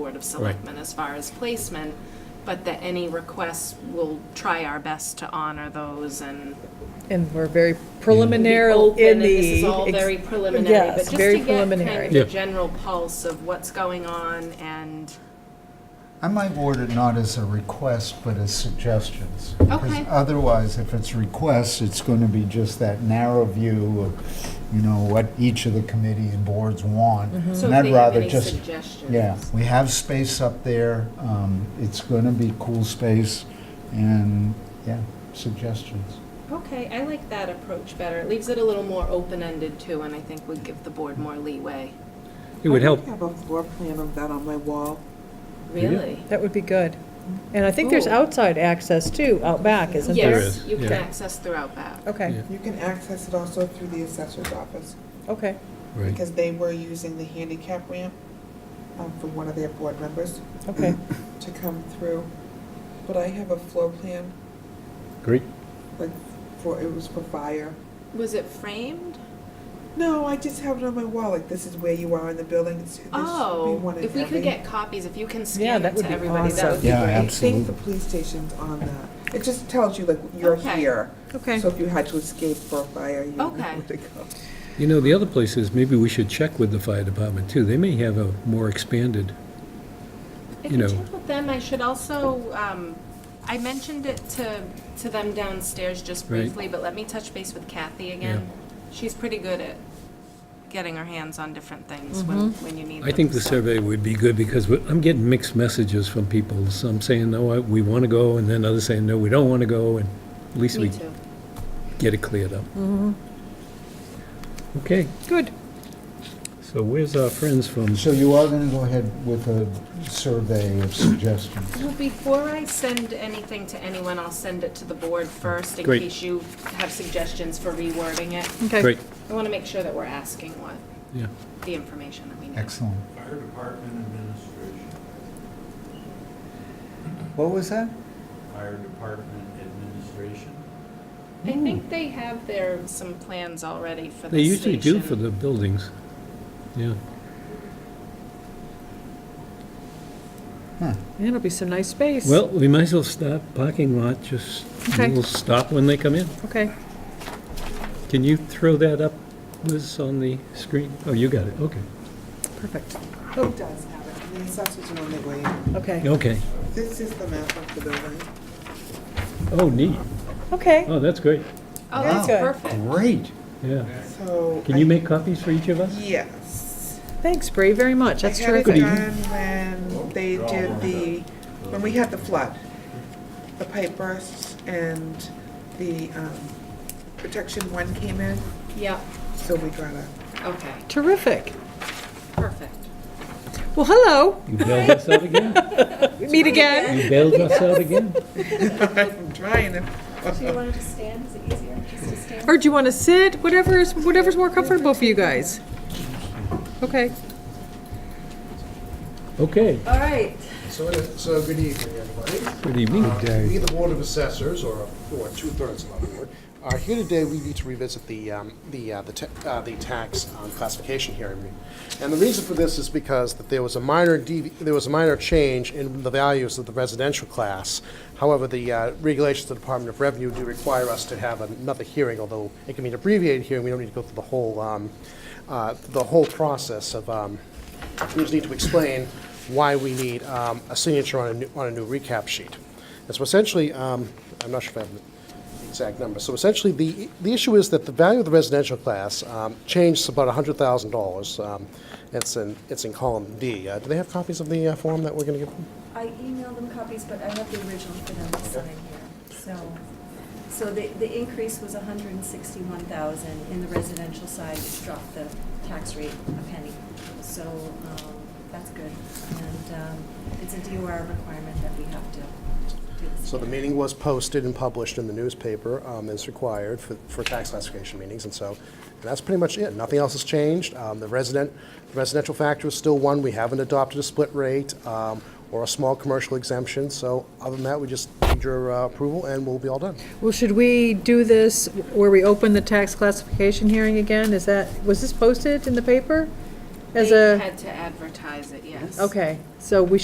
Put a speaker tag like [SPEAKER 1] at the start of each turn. [SPEAKER 1] Board of Selectmen as far as placement, but that any requests, we'll try our best to honor those and
[SPEAKER 2] And we're very
[SPEAKER 1] be
[SPEAKER 2] preliminary
[SPEAKER 1] open,
[SPEAKER 2] in
[SPEAKER 1] and
[SPEAKER 2] the.
[SPEAKER 1] this is all
[SPEAKER 2] ex-
[SPEAKER 1] very preliminary,
[SPEAKER 2] yes,
[SPEAKER 1] but just
[SPEAKER 2] very
[SPEAKER 1] to get kind
[SPEAKER 2] preliminary.
[SPEAKER 1] of
[SPEAKER 3] Yeah.
[SPEAKER 1] a general pulse of what's going on and,
[SPEAKER 2] Mm-hmm.
[SPEAKER 4] I might word it not as a request, but as suggestions. Because
[SPEAKER 1] Okay.
[SPEAKER 4] Otherwise, if it's requests, it's going to be just that narrow view of, you know, what each of the committee and boards want.
[SPEAKER 1] so
[SPEAKER 4] And
[SPEAKER 1] if
[SPEAKER 4] I'd
[SPEAKER 1] they have
[SPEAKER 4] rather
[SPEAKER 1] any
[SPEAKER 4] just
[SPEAKER 1] suggestions.
[SPEAKER 4] Yeah, we have space up there. Um, It's going to be cool space and, yeah, suggestions.
[SPEAKER 1] Okay, I like that approach better. It leaves it a little more open-ended too, and I think would give the board more leeway.
[SPEAKER 3] It would help.
[SPEAKER 5] I have a floor plan of that on my wall.
[SPEAKER 3] Yeah.
[SPEAKER 1] Really?
[SPEAKER 2] That would be good. And I think there's
[SPEAKER 1] Ooh.
[SPEAKER 2] outside access too, out back, isn't
[SPEAKER 3] There
[SPEAKER 2] there?
[SPEAKER 1] Yes,
[SPEAKER 3] is,
[SPEAKER 1] you can
[SPEAKER 3] yeah.
[SPEAKER 1] access throughout that.
[SPEAKER 2] Okay,
[SPEAKER 3] Yeah.
[SPEAKER 5] You can access it also through the assessor's office,
[SPEAKER 2] okay.
[SPEAKER 3] Right.
[SPEAKER 5] because they were using the handicap ramp um, from one of their board members
[SPEAKER 2] Okay,
[SPEAKER 5] to come through. But I have a floor plan,
[SPEAKER 3] Great.
[SPEAKER 5] like, for, it was for fire.
[SPEAKER 1] Was it framed?
[SPEAKER 5] No, I just have it on my wall, like, this is where you are in the building. It's- there should be
[SPEAKER 1] Oh,
[SPEAKER 5] one in
[SPEAKER 1] if we could
[SPEAKER 5] every-
[SPEAKER 1] get copies, if you can
[SPEAKER 2] Yeah,
[SPEAKER 1] scan
[SPEAKER 2] that
[SPEAKER 1] it
[SPEAKER 2] would
[SPEAKER 1] to
[SPEAKER 2] be
[SPEAKER 1] everybody, that would be
[SPEAKER 4] Yeah,
[SPEAKER 5] I
[SPEAKER 1] great.
[SPEAKER 5] think the
[SPEAKER 4] absolutely.
[SPEAKER 5] police station's on that. It just tells you, like, you're
[SPEAKER 1] Okay.
[SPEAKER 5] here.
[SPEAKER 2] okay.
[SPEAKER 5] So if you had to escape for a fire, you know
[SPEAKER 1] Okay.
[SPEAKER 5] where to go.
[SPEAKER 3] You know, the other place is, maybe we should check with the fire department, too. They may have a more expanded,
[SPEAKER 1] If
[SPEAKER 3] you
[SPEAKER 1] you
[SPEAKER 3] know.
[SPEAKER 1] check with them, I should also, um, I mentioned it to, to them downstairs just
[SPEAKER 3] Right.
[SPEAKER 1] briefly, but let me touch base with Kathy again. She's pretty good at getting her hands on different things when, when you need them.
[SPEAKER 3] I think the
[SPEAKER 1] so.
[SPEAKER 3] survey would be good, because we- I'm getting mixed messages from people. Some saying, no, I- we want to go, and then others saying, no, we don't want to go, and at least
[SPEAKER 1] Me
[SPEAKER 3] we
[SPEAKER 1] too. Mm-hmm.
[SPEAKER 3] get it cleared up. Okay,
[SPEAKER 2] Good.
[SPEAKER 3] so where's our friends from?
[SPEAKER 4] So you are going to go ahead with a survey of suggestions.
[SPEAKER 1] Well, before I send anything to anyone, I'll send it to the board first in
[SPEAKER 3] Great.
[SPEAKER 1] case you have suggestions for rewording it.
[SPEAKER 2] Okay.
[SPEAKER 3] Great,
[SPEAKER 1] I want to make sure that we're asking what,
[SPEAKER 3] yeah.
[SPEAKER 1] the information that we need.
[SPEAKER 4] Excellent.
[SPEAKER 6] Fire Department Administration,
[SPEAKER 4] What was that?
[SPEAKER 6] Fire Department Administration.
[SPEAKER 1] I think they have their, some plans already for the
[SPEAKER 3] Hmm. They usually do
[SPEAKER 1] station.
[SPEAKER 3] for the buildings. Yeah,
[SPEAKER 2] Man, It'll be some nice space.
[SPEAKER 3] well, we might as well stop parking lot, just,
[SPEAKER 2] Okay.
[SPEAKER 3] we'll stop when they come in.
[SPEAKER 2] Okay,
[SPEAKER 3] Can you throw that up, Liz, on the screen? Oh, you got it, okay.
[SPEAKER 2] perfect.
[SPEAKER 5] Who does have it? The assessors are on their way in.
[SPEAKER 2] Okay,
[SPEAKER 3] Okay.
[SPEAKER 5] This is the map of the building.
[SPEAKER 3] Oh, neat.
[SPEAKER 2] okay.
[SPEAKER 3] Oh, that's great,
[SPEAKER 1] Oh,
[SPEAKER 2] Wow.
[SPEAKER 1] that's
[SPEAKER 2] Good.
[SPEAKER 1] perfect.
[SPEAKER 4] Great.
[SPEAKER 3] yeah.
[SPEAKER 5] So.
[SPEAKER 3] Can you
[SPEAKER 5] I-
[SPEAKER 3] make copies for each of us?
[SPEAKER 5] Yes.
[SPEAKER 2] Thanks, Bree, very much. That's terrific.
[SPEAKER 5] I had it done when they did the, when we had the flood, the pipe bursts and the um, protection one came in,
[SPEAKER 1] Yeah,
[SPEAKER 5] so we got a,
[SPEAKER 1] okay,
[SPEAKER 2] Terrific.
[SPEAKER 1] perfect.
[SPEAKER 2] Well, hello,
[SPEAKER 3] You bailed us out again?
[SPEAKER 2] we meet again.
[SPEAKER 3] You bailed us out again?
[SPEAKER 5] I'm trying to.
[SPEAKER 1] want to just stand? Is it easier just to stand?
[SPEAKER 2] Or do you want to sit? Whatever is, whatever's more comfortable for you guys. Okay.
[SPEAKER 3] Okay,
[SPEAKER 7] All right,
[SPEAKER 8] So, it is- so good evening, everybody.
[SPEAKER 3] good evening,
[SPEAKER 8] Uh, We, the Board of Assessors, or, or two-thirds of our board, are here today, we need to revisit the, um, the, uh, the ta- uh, the tax um, classification hearing. And the reason for this is because that there was a minor, devi- there was a minor change in the values of the residential class. However, the uh, regulations of the Department of Revenue do require us to have another hearing, although it can be an abbreviated hearing, we don't need to go through the whole, um, uh, the whole process of, um, we just need to explain why we need um, a signature on a new, on a new recap sheet. And so essentially, um, I'm not sure if I have the exact number, so essentially, the, the issue is that the value of the residential class um, changed about $100,000. Um, It's in, it's in column D. Uh, Do they have copies of the uh, form that we're going to give them?
[SPEAKER 7] I emailed them copies, but I have the original for them to sign here. So, so the, the increase was hundred and sixty-one thousand in the residential side, which dropped the tax rate a penny. So, um, that's good. And, um, it's a DOR requirement that we have to do this.
[SPEAKER 8] So the
[SPEAKER 7] again.
[SPEAKER 8] meeting was posted and published in the newspaper um, as required for, for tax classification meetings, and so, and that's pretty much it. Nothing else has changed. Um, The resident, the residential factor is still one. We haven't adopted a split rate um, or a small commercial exemption, so other than that, we just need your uh, approval and we'll be all done.
[SPEAKER 2] Well, should we do this where we open the tax classification hearing again? Is that, was this posted in the paper? As
[SPEAKER 1] They
[SPEAKER 2] a,
[SPEAKER 1] had to advertise it, yes.
[SPEAKER 2] okay, so we should